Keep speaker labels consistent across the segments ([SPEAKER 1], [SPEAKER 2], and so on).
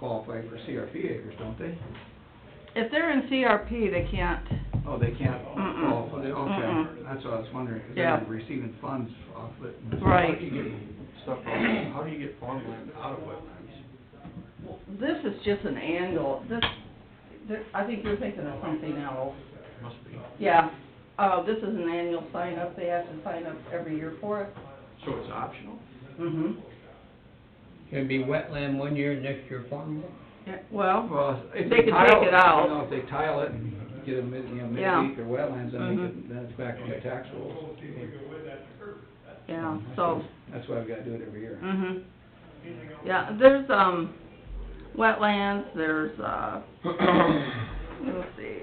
[SPEAKER 1] qualify for CRP acres, don't they?
[SPEAKER 2] If they're in CRP, they can't,
[SPEAKER 1] Oh, they can't
[SPEAKER 2] Mm-mm.
[SPEAKER 1] qualify, okay,
[SPEAKER 2] Mm-mm.
[SPEAKER 1] that's what I was wondering, because
[SPEAKER 2] Yeah.
[SPEAKER 1] they're receiving funds off it.
[SPEAKER 2] Right.
[SPEAKER 3] How do you get stuff out, how do you get farmland out of wetlands?
[SPEAKER 2] this is just an angle, this, there- I think you're thinking of something else.
[SPEAKER 3] Must be.
[SPEAKER 2] Yeah, uh, this is an annual sign up, they have to sign up every year for it.
[SPEAKER 3] So it's optional?
[SPEAKER 2] Mm-hmm.
[SPEAKER 4] It'd be wetland one year, next year farmland.
[SPEAKER 2] Yeah, well,
[SPEAKER 1] Well, if
[SPEAKER 2] They
[SPEAKER 1] they
[SPEAKER 2] could take
[SPEAKER 1] tile,
[SPEAKER 2] it
[SPEAKER 1] you
[SPEAKER 2] out.
[SPEAKER 1] know, if they tile it and get a mid, you know,
[SPEAKER 2] Yeah.
[SPEAKER 1] midweek or wetlands, then they
[SPEAKER 2] Mhm.
[SPEAKER 1] could, then it's back on the tax rolls.
[SPEAKER 2] yeah, so,
[SPEAKER 1] That's why we gotta do it every year.
[SPEAKER 2] hmm Yeah, there's, um, wetlands, there's, uh, let's see,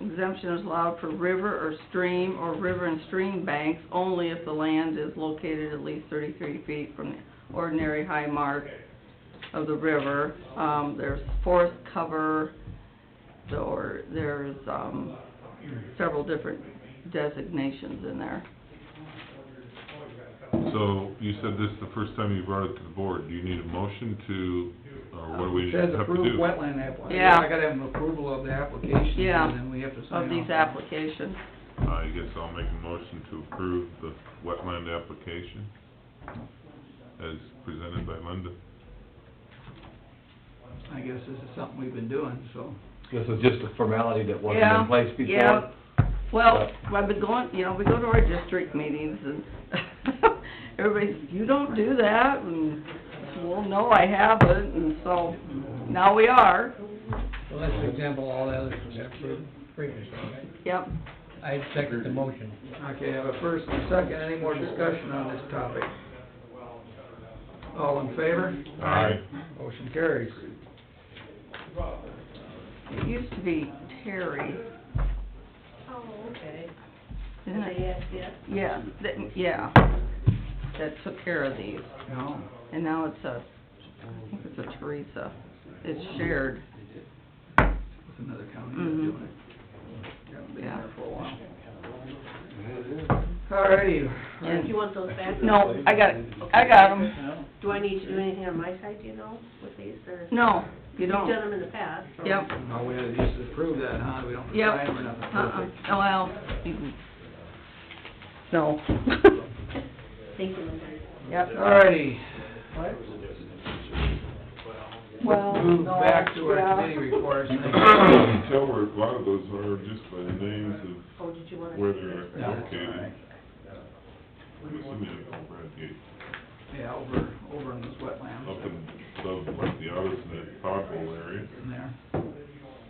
[SPEAKER 2] exemption is allowed for river or stream or river and stream banks only if the land is located at least thirty-three feet from the ordinary high mark of the river. Um, there's forest cover, or there's, um, several different designations in there.
[SPEAKER 5] So you said this is the first time you brought it to the board. Do you need a motion to, or what do we
[SPEAKER 1] It
[SPEAKER 5] have
[SPEAKER 1] Says
[SPEAKER 5] to do?
[SPEAKER 1] approved wetland app,
[SPEAKER 2] Yeah.
[SPEAKER 1] I gotta have an approval of the application,
[SPEAKER 2] Yeah.
[SPEAKER 1] and then we have to sign off.
[SPEAKER 2] Of these applications.
[SPEAKER 5] I guess I'll make a motion to approve the wetland application as presented by Linda.
[SPEAKER 1] I guess this is something we've been doing, so.
[SPEAKER 6] This is just a formality that wasn't
[SPEAKER 2] Yeah,
[SPEAKER 6] in place before?
[SPEAKER 2] yeah. Well, I've been going, you know, we go to our district meetings and everybody's, you don't do that, and, well, no, I haven't, and so, now we are,
[SPEAKER 4] Well, that's example, all the others was approved previously, right?
[SPEAKER 2] yep.
[SPEAKER 4] I second the motion.
[SPEAKER 1] Okay, I have a first and a second, any more discussion on this topic? All in favor?
[SPEAKER 5] Aye.
[SPEAKER 1] Motion carries.
[SPEAKER 2] It used to be Terry,
[SPEAKER 7] Oh, okay.
[SPEAKER 2] didn't
[SPEAKER 7] Did they
[SPEAKER 2] it?
[SPEAKER 7] ask yet?
[SPEAKER 2] Yeah, that- yeah, that took care of these,
[SPEAKER 1] No,
[SPEAKER 2] and now it's a, I think it's a Teresa, it's shared.
[SPEAKER 1] it's another county that's
[SPEAKER 2] Mhm.
[SPEAKER 1] doing it. Haven't been
[SPEAKER 2] Yeah.
[SPEAKER 1] there for a while. Alrighty,
[SPEAKER 7] Do you want those back?
[SPEAKER 2] No, I got, I got 'em.
[SPEAKER 7] Do I need to do anything on my side, do you know, with these, or?
[SPEAKER 2] No, you
[SPEAKER 7] You've done
[SPEAKER 2] don't,
[SPEAKER 7] them in the past, so.
[SPEAKER 2] yep.
[SPEAKER 1] no, we had to just approve that, huh, we don't
[SPEAKER 2] Yep.
[SPEAKER 1] sign them or nothing,
[SPEAKER 2] Uh-uh,
[SPEAKER 1] perfect.
[SPEAKER 2] oh, well, mm-mm. no.
[SPEAKER 7] Thank you, Linda.
[SPEAKER 2] Yep.
[SPEAKER 1] Alrighty,
[SPEAKER 2] Well,
[SPEAKER 1] move back to our committee reports.
[SPEAKER 5] Tell where a lot of those are just by the names of
[SPEAKER 7] Oh, did you want to?
[SPEAKER 5] where they're
[SPEAKER 1] No, that's all
[SPEAKER 5] located.
[SPEAKER 1] right.
[SPEAKER 5] I'm assuming it's over at the,
[SPEAKER 1] Yeah, over, over in those wetlands.
[SPEAKER 5] up in, above like the Odison and Pothole area.
[SPEAKER 1] In there.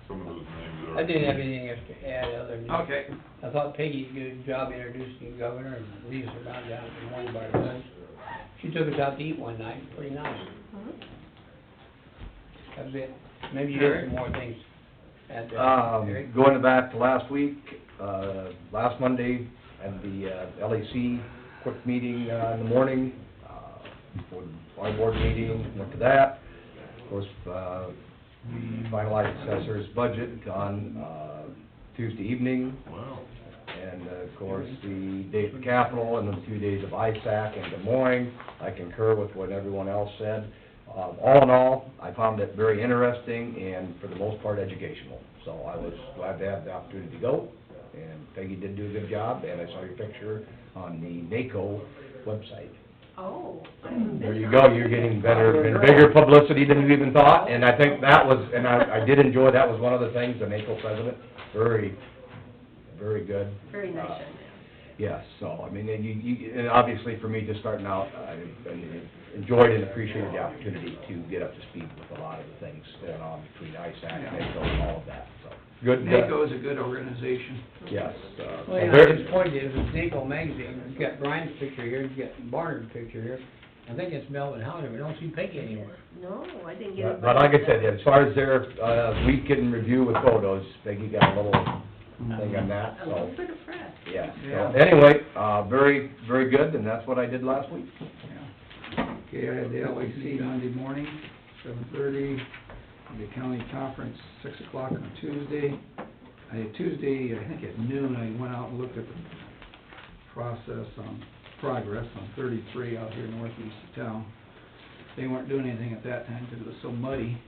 [SPEAKER 5] Some of those names are.
[SPEAKER 4] I didn't have anything else to add other than.
[SPEAKER 1] Okay,
[SPEAKER 4] I thought Peggy did a good job introducing the governor and leaves her down down in one bar lunch. She took us out to eat one night, pretty nice. Mm-hmm. That was it. Maybe you had some more things at the.
[SPEAKER 6] Um, going back to last week, uh, last Monday, at the uh, LAC, quick meeting uh, in the morning, uh, for our board meeting, went to that. Of course, uh, we finalized assessor's budget on, uh, Tuesday evening,
[SPEAKER 5] Wow.
[SPEAKER 6] and uh, of course, the day for capital and the two days of ISAC in Des Moines. I concur with what everyone else said. Um, All in all, I found it very interesting and for the most part educational. So I was glad to have the opportunity to go, and Peggy did do a good job, and I saw your picture on the NACO website.
[SPEAKER 7] Oh. I haven't
[SPEAKER 6] There
[SPEAKER 7] been
[SPEAKER 6] you
[SPEAKER 7] on.
[SPEAKER 6] go, you're getting better, and bigger publicity than you even thought, and I think that was, and I, I did enjoy, that was one of the things, the NACO president, very, very good.
[SPEAKER 7] Very nice,
[SPEAKER 6] Uh,
[SPEAKER 7] young man.
[SPEAKER 6] Yes, so, I mean, and you, you, and obviously for me, just starting out, I I enjoyed and appreciated the opportunity to get up to speed with a lot of the things going on between ISAC, NACO, and all of that, so. Good, uh,
[SPEAKER 1] NACO is a good organization.
[SPEAKER 6] yes, uh, so
[SPEAKER 4] Well, yeah,
[SPEAKER 6] very-
[SPEAKER 4] his point is, it's Naco magazine, you've got Brian's picture here, you've got Barnard's picture here. I think it's Melvin Howard, we don't see Peggy anywhere.
[SPEAKER 7] No, I didn't get
[SPEAKER 6] But
[SPEAKER 7] it.
[SPEAKER 6] but like I said, as far as their, uh, week in review with photos, Peggy got a little thing on that,
[SPEAKER 7] A little
[SPEAKER 6] so,
[SPEAKER 7] bit of press.
[SPEAKER 6] yeah.
[SPEAKER 1] Yeah.
[SPEAKER 6] So, anyway, uh, very, very good, and that's what I did last week.
[SPEAKER 1] Yeah. Okay, I had the LAC Monday morning, seven thirty, the county conference, six o'clock on Tuesday. I had Tuesday, I think at noon, I went out and looked at the process on, progress on thirty-three out here northeast of town. They weren't doing anything at that time because it was so muddy,